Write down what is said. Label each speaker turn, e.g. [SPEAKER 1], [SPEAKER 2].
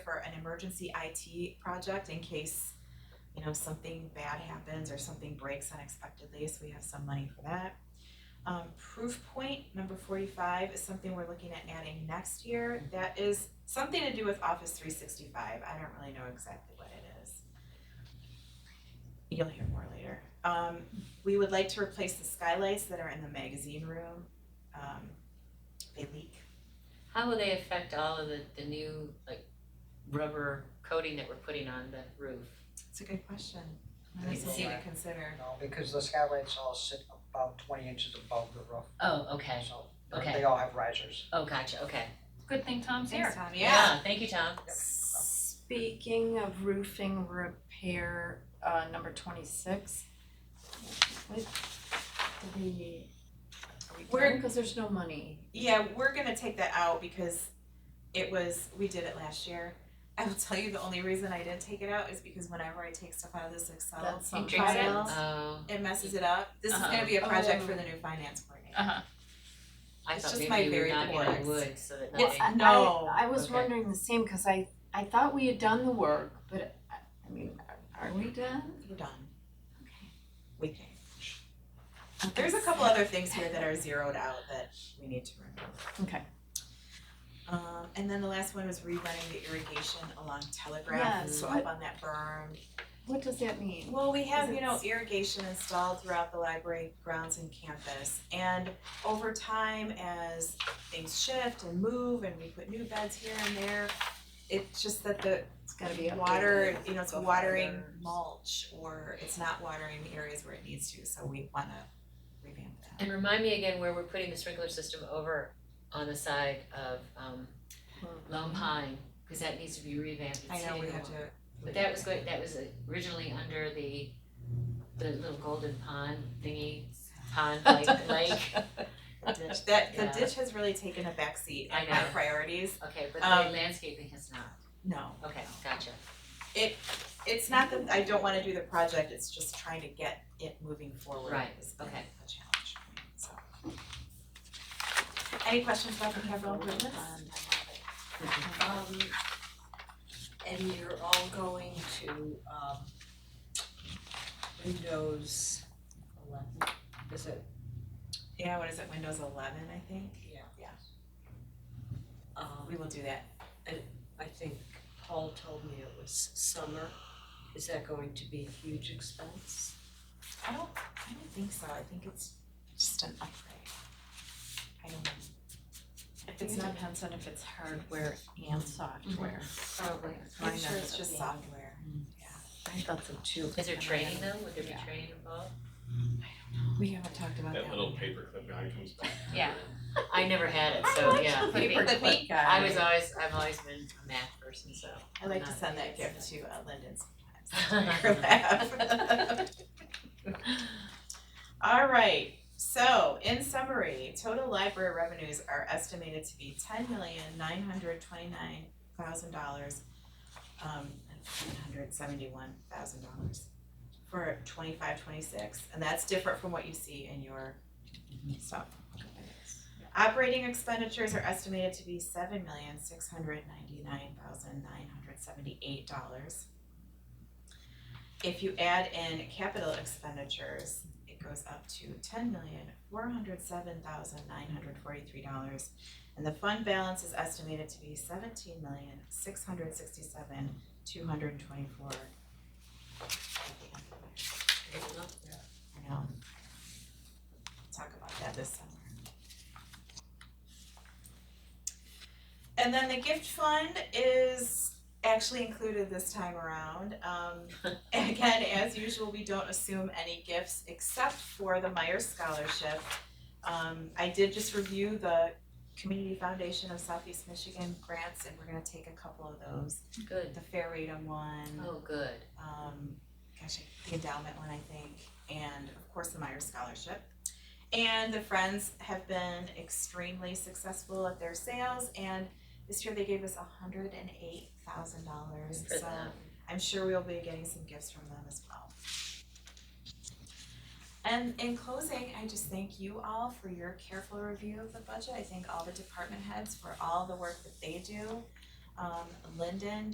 [SPEAKER 1] for an emergency IT project in case, you know, something bad happens or something breaks unexpectedly, so we have some money for that. Um, proof point, number forty-five, is something we're looking at adding next year, that is something to do with Office three sixty-five, I don't really know exactly what it is. You'll hear more later. Um, we would like to replace the skylights that are in the magazine room, um, they leak.
[SPEAKER 2] How will they affect all of the, the new, like, rubber coating that we're putting on the roof?
[SPEAKER 1] It's a good question.
[SPEAKER 2] Nice
[SPEAKER 1] Nice
[SPEAKER 2] to
[SPEAKER 1] to
[SPEAKER 2] see
[SPEAKER 1] see
[SPEAKER 2] that.
[SPEAKER 1] to consider.
[SPEAKER 3] No, because the skylights all sit about twenty inches above the roof,
[SPEAKER 2] Oh, okay,
[SPEAKER 3] so
[SPEAKER 2] Okay.
[SPEAKER 3] they all have risers.
[SPEAKER 2] oh, gotcha, okay.
[SPEAKER 4] Good thing Tom's
[SPEAKER 1] Thanks,
[SPEAKER 4] here.
[SPEAKER 1] Tom, yeah.
[SPEAKER 2] Thank you, Tom.
[SPEAKER 5] Speaking of roofing repair, uh, number twenty-six. What did we, are we
[SPEAKER 1] We're-
[SPEAKER 5] done? cause there's no money.
[SPEAKER 1] Yeah, we're gonna take that out because it was, we did it last year. I will tell you, the only reason I didn't take it out is because whenever I take stuff out of this Excel
[SPEAKER 5] That's
[SPEAKER 1] file,
[SPEAKER 4] Drinks it.
[SPEAKER 2] Oh,
[SPEAKER 1] it messes it up. This is
[SPEAKER 2] Uh-huh.
[SPEAKER 1] gonna be a project
[SPEAKER 5] Oh. Uh.
[SPEAKER 1] for the new finance coordinator.
[SPEAKER 4] Uh-huh.
[SPEAKER 2] I
[SPEAKER 1] It's
[SPEAKER 2] thought
[SPEAKER 1] just
[SPEAKER 2] maybe
[SPEAKER 1] my
[SPEAKER 2] you were
[SPEAKER 1] very
[SPEAKER 2] knocking on
[SPEAKER 1] boards.
[SPEAKER 2] wood so that
[SPEAKER 1] It's-
[SPEAKER 2] nothing,
[SPEAKER 1] No.
[SPEAKER 5] I, I was
[SPEAKER 2] Okay.
[SPEAKER 5] wondering the same, cause I, I thought we had done the work, but I, I mean, are are we done?
[SPEAKER 1] We're done. We think.
[SPEAKER 5] Okay.
[SPEAKER 1] There's a couple other things here that are zeroed out that we need to remove.
[SPEAKER 5] Okay.
[SPEAKER 1] Um, and then the last one was rerunning the irrigation along
[SPEAKER 5] Yeah,
[SPEAKER 1] Telegraph, so up
[SPEAKER 5] what-
[SPEAKER 1] on that berm.
[SPEAKER 5] What does that mean?
[SPEAKER 1] Well, we have,
[SPEAKER 5] Is
[SPEAKER 1] you
[SPEAKER 5] it
[SPEAKER 1] know,
[SPEAKER 5] s-
[SPEAKER 1] irrigation installed throughout the library grounds and campus. And over time, as things shift and move and we put new beds here and there, it's just that the
[SPEAKER 5] It's gotta be updated.
[SPEAKER 1] water, you know, it's
[SPEAKER 5] Go
[SPEAKER 1] watering
[SPEAKER 5] further.
[SPEAKER 1] mulch or it's not watering the areas where it needs to, so we wanna revamp that.
[SPEAKER 2] and remind me again where we're putting the sprinkler system over on the side of, um, Lone Pine, cause that needs to be revamped and
[SPEAKER 1] I know, we
[SPEAKER 2] sitting
[SPEAKER 1] have to,
[SPEAKER 2] along. But that was good, that was originally under the, the little golden pond thingy, pond like lake,
[SPEAKER 1] the ditch, that, the
[SPEAKER 2] Yeah.
[SPEAKER 1] ditch has really taken a backseat
[SPEAKER 2] I
[SPEAKER 1] in my
[SPEAKER 2] know.
[SPEAKER 1] priorities,
[SPEAKER 2] okay, but
[SPEAKER 1] Um,
[SPEAKER 2] the landscaping has not,
[SPEAKER 1] no.
[SPEAKER 2] okay, gotcha.
[SPEAKER 1] it's not that I don't wanna do the project, it's just trying to get it moving forward
[SPEAKER 2] Right,
[SPEAKER 1] is been a
[SPEAKER 2] okay.
[SPEAKER 1] challenge for me, so. Any questions about the capital improvements?
[SPEAKER 6] Um, and you're all going to, um, Windows eleven, is it?
[SPEAKER 1] Yeah, what is it, Windows eleven, I think? We
[SPEAKER 6] Um,
[SPEAKER 1] will do that.
[SPEAKER 6] I think Paul told me it was summer, is that going to be a huge expense?
[SPEAKER 1] I don't, I don't think so, I think it's just an upgrade. I don't know.
[SPEAKER 5] I think it depends on if it's hardware and software.
[SPEAKER 2] Probably.
[SPEAKER 1] I'm
[SPEAKER 5] Mine
[SPEAKER 1] sure
[SPEAKER 5] ends
[SPEAKER 1] it's Mm-hmm.
[SPEAKER 5] up
[SPEAKER 1] just
[SPEAKER 5] being-
[SPEAKER 1] software.
[SPEAKER 5] I thought so too.
[SPEAKER 2] Is there training though, would there be
[SPEAKER 5] Yeah.
[SPEAKER 2] training involved?
[SPEAKER 5] We haven't talked about that.
[SPEAKER 7] That little paperclip guy comes back.
[SPEAKER 4] Yeah.
[SPEAKER 2] I never had it, so yeah,
[SPEAKER 1] the paper
[SPEAKER 2] Maybe.
[SPEAKER 1] clip
[SPEAKER 5] guy.
[SPEAKER 2] I was always, I've always been a math person, so.
[SPEAKER 1] I like to send that gift to uh, Lyndon sometimes. Her laugh. All right, so in summary, total library revenues are estimated to be ten million nine hundred twenty-nine thousand dollars, um, nine hundred seventy-one thousand dollars for twenty-five, twenty-six, and that's different from what you see in your stuff. Operating expenditures are estimated to be seven million six hundred ninety-nine thousand nine hundred seventy-eight dollars. If you add in capital expenditures, it goes up to ten million four hundred seven thousand nine hundred forty-three dollars. And the fund balance is estimated to be seventeen million six hundred sixty-seven two hundred twenty-four. I know. Talk about that this summer. And then the gift fund is actually included this time around. Um, again, as usual, we don't assume any gifts except for the Myers Scholarship. Um, I did just review the Community Foundation of Southeast Michigan grants, and we're gonna take a couple of those.
[SPEAKER 2] Good,
[SPEAKER 1] The Fair Reading one,
[SPEAKER 2] oh, good.
[SPEAKER 1] um, gosh, I- the endowment one, I think, and of course the Myers Scholarship. And the Friends have been extremely successful at their sales, and this year they gave us hundred and eight thousand dollars,
[SPEAKER 2] For
[SPEAKER 1] so
[SPEAKER 2] them.
[SPEAKER 1] I'm sure we'll be getting some gifts from them as well. And in closing, I just thank you all for your careful review of the budget. I thank all the department heads for all the work that they do. Um, Lyndon,